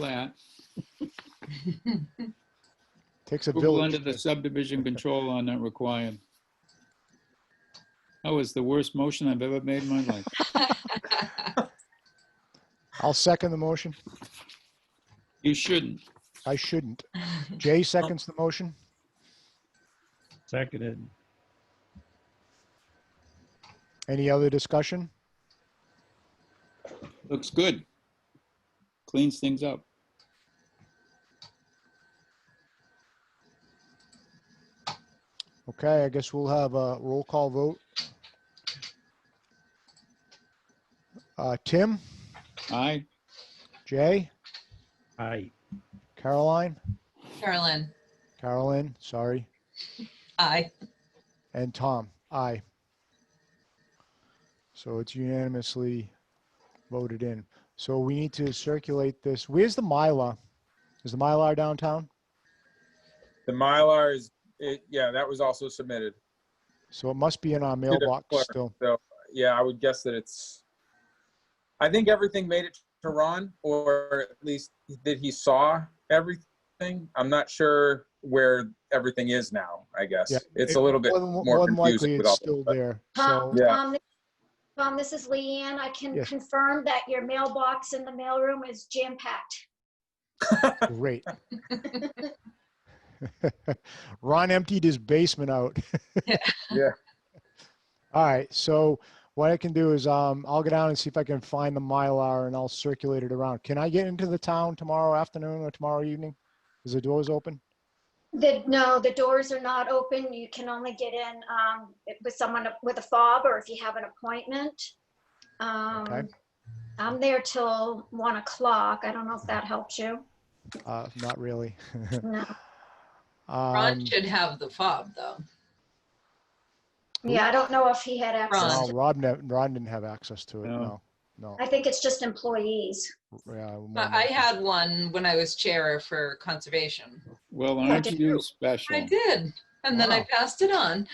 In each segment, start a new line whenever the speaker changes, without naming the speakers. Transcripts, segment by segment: that.
Takes a
Approval
village.
under the subdivision control law not required. That was the worst motion I've ever made in my life.
I'll second the motion.
You shouldn't.
I shouldn't. Jay seconds the motion.
Seconded.
Any other discussion?
Looks good. Cleans things up.
Okay, I guess we'll have a roll call vote. Uh, Tim,
Aye.
Jay,
Aye.
Caroline,
Carolyn,
Carolyn, sorry,
aye.
and Tom. Aye. So it's unanimously voted in. So we need to circulate this. Where's the Mylar? Is the Mylar downtown?
The Mylar is, it, yeah, that was also submitted.
So it must be in our
the
mailbox
clerk.
still.
Yeah, I would guess that it's, I think everything made it to Ron, or at least that he saw everything. I'm not sure where everything is now, I guess.
Yeah.
It's a little bit
More than-
more
more than likely,
confusing with
it's
all.
still
that.
there. So.
Tom,
Yeah.
Tom, this- Tom, this is Leanne. I can
Yes.
confirm that your mailbox in the mailroom is jam-packed.
Great. Ron emptied his basement out.
Yeah.
All right. So what I can do is um, I'll go down and see if I can find the Mylar and I'll circulate it around. Can I get into the town tomorrow afternoon or tomorrow evening? Is the doors open?
The, no, the doors are not open. You can only get in um, with someone with a fob or if you have an appointment. Um,
Okay.
I'm there till one o'clock. I don't know if that helps you.
Uh, not really.
No.
Um,
Ron should have the fob, though.
Yeah, I don't know if he had access.
no,
to-
Rob, ne- Ron didn't have access to it. No,
No.
no.
I think it's just employees.
yeah, one
I I
more.
had one when I was chair for conservation.
Well, aren't you special?
I did, and then I
Wow.
passed it on.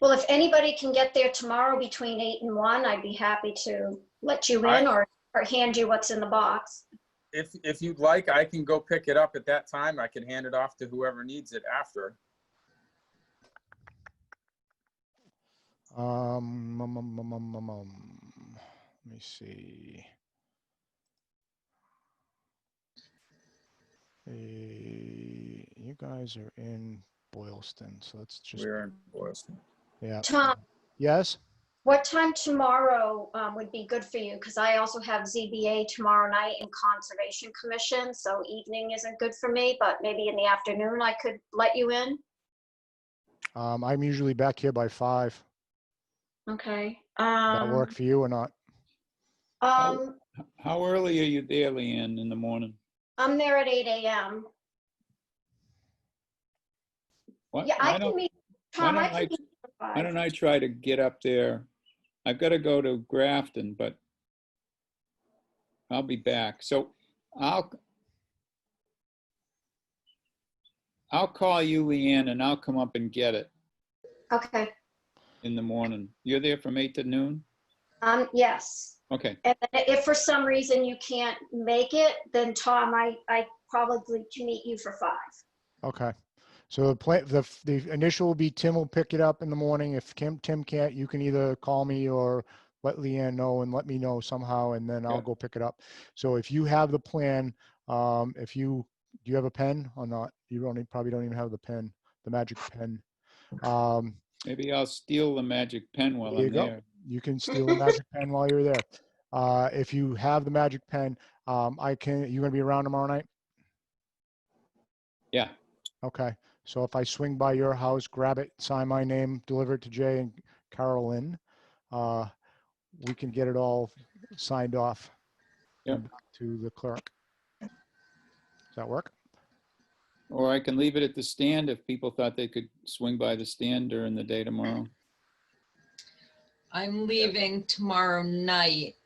Well, if anybody can get there tomorrow between eight and one, I'd be happy to let you
I-
in or, or hand you what's in the box.
If, if you'd like, I can go pick it up at that time. I can hand it off to whoever needs it after.
Um, um, um, um, um, um, um, let me see. Eh, you guys are in Boylston, so let's just,
We're in Boylston.
yeah.
Tom,
Yes,
what time tomorrow um, would be good for you? Because I also have ZBA tomorrow night and Conservation Commission, so evening isn't good for me, but maybe in the afternoon I could let you in.
um, I'm usually back here by five.
Okay.
That
Um,
work for you or not?
um,
How early are you there, Leanne, in the morning?
I'm there at eight AM.
Why-
Yeah,
why
I
don't-
can meet,
why
Tom, I
don't I-
can meet. you at
Why
five.
don't I try to get up there? I've got to go to Grafton, but I'll be back. So I'll I'll call you, Leanne, and I'll come up and get it
Okay,
in the morning. You're there from eight to noon?
um, yes.
Okay,
And then if for some reason you can't make it, then Tom, I, I probably can meet you for five.
Okay. So the plan, the, f- the initial will be Tim will pick it up in the morning. If Tim, Tim can't, you can either call me or let Leanne know and let me know somehow, and then I'll
Yeah.
go pick it up. So if you have the plan, um, if you, do you have a pen or not? You don't, e- probably don't even have the pen, the magic pen. Um,
maybe I'll steal the magic pen while
There you
I'm
go.
there.
you can steal the magic pen while you're there. Uh, if you have the magic pen, um, I can, you gonna be around tomorrow night?
Yeah,
Okay, so if I swing by your house, grab it, sign my name, deliver it to Jay and Carolyn, uh, we can get it all signed off
Yep.
and back to the clerk. Does that work?
or I can leave it at the stand if people thought they could swing by the stand during the day tomorrow.
I'm leaving tomorrow night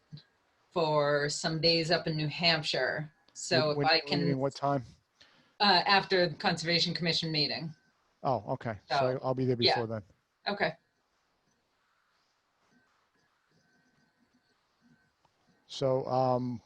for some days up in New Hampshire. So
When-
if
when-
I
what do you mean,
can,
What time?
uh, after the Conservation Commission meeting.
Oh, okay, so
So,
I'll be there
yeah.
before then.
Okay,
So um,